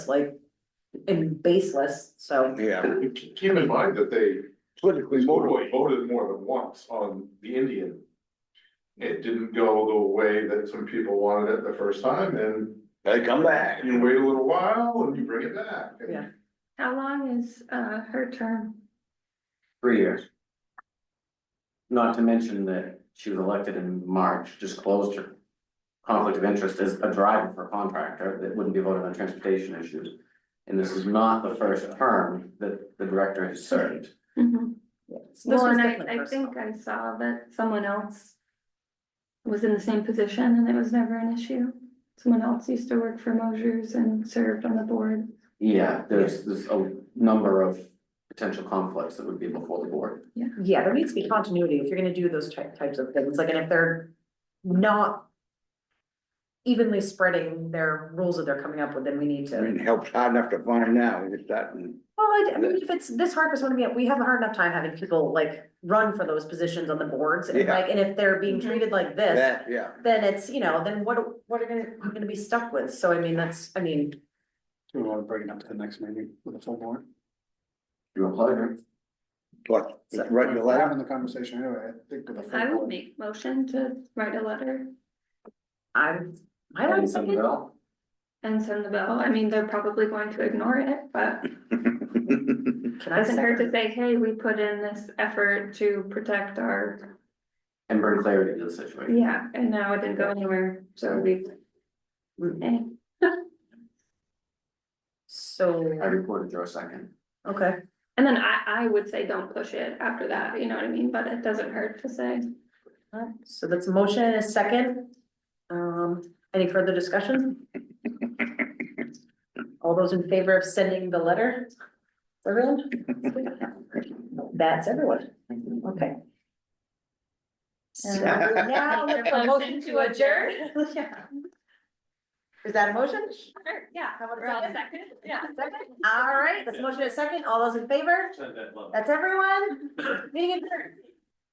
like, and baseless, so. Yeah, Keep in mind that they politically voted, motivated. voted more than once on the Indian. It didn't go the way that some people wanted it the first time, and They come back. you wait a little while and you bring it back. and Yeah. How long is uh her term? Three years. Not to mention that she was elected in March, just closed her conflict of interest as a driver for a contractor that wouldn't be voted on transportation issues. And this is not the first term that the director has served. This Mm-hmm. Well, was and definitely I I personal. think I saw that someone else. Was in the same position and it was never an issue. Someone else used to work for Mosers and served on the board. Yeah, there's, there's a number of potential conflicts that would be before the board. Yeah, there needs to be continuity if you're gonna do those type, types of things, like, and if they're not evenly spreading their rules that they're coming up with, then we need I to. mean, helps hard enough to find now, it's that, and Well, I, I mean, if it's this hard for someone to be, we have a hard enough time having people like run for those positions on the boards and Yeah. like, and if they're Mm-hmm. being treated like this, that, yeah. then it's, you know, then what, what are gonna, we're gonna be stuck with? So I mean, that's, I mean, Do we wanna bring it up to the next meeting with a full board? Your pleasure. Plus, it's right in the We're left. Having the conversation anyway, I think. with a full I would board. make motion to write a letter I'm, I like Anything something. else? and send the bill. I mean, they're probably going to ignore it, but Can I doesn't hurt to second? say, hey, we put in this effort to protect our. And bring clarity to the situation. Yeah, and now it didn't go anywhere, so we. Mm. Eh. I So, recorded your second. okay, And then I, I would say don't push it after that, you know what I mean, but it doesn't hurt to say. alright, so that's a motion and a second. Um, any further discussion? All those in favor of sending the letter? Everyone? That's everyone, okay. And now look for a motion to adjourn. Yeah. Is that a motion? Sure, yeah. How about a We're all second? second, yeah. Second? All right, that's a motion and a second, all those in favor? That's everyone, meeting adjourned.